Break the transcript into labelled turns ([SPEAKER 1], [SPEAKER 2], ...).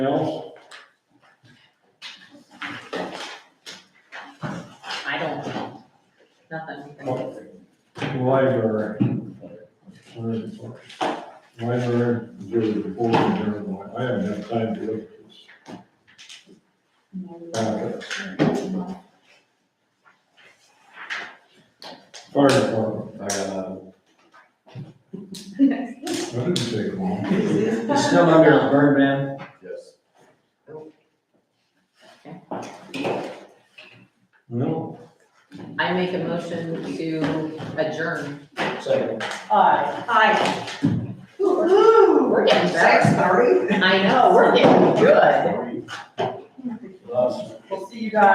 [SPEAKER 1] else?
[SPEAKER 2] I don't know. Nothing we can do.
[SPEAKER 1] Library. Where's the book? Library, do the board, journal. I haven't had time to look at this. packet. Fire department,
[SPEAKER 3] Uh,
[SPEAKER 1] that didn't take long.
[SPEAKER 3] It's still under the burn ban? Yes.
[SPEAKER 1] No,
[SPEAKER 2] I make a motion to adjourn.
[SPEAKER 3] Second.
[SPEAKER 4] Aye. Aye.
[SPEAKER 2] We're getting
[SPEAKER 4] Six
[SPEAKER 2] better.
[SPEAKER 4] thirty.
[SPEAKER 2] I know, we're getting good.
[SPEAKER 3] Last.
[SPEAKER 4] We'll see you guys.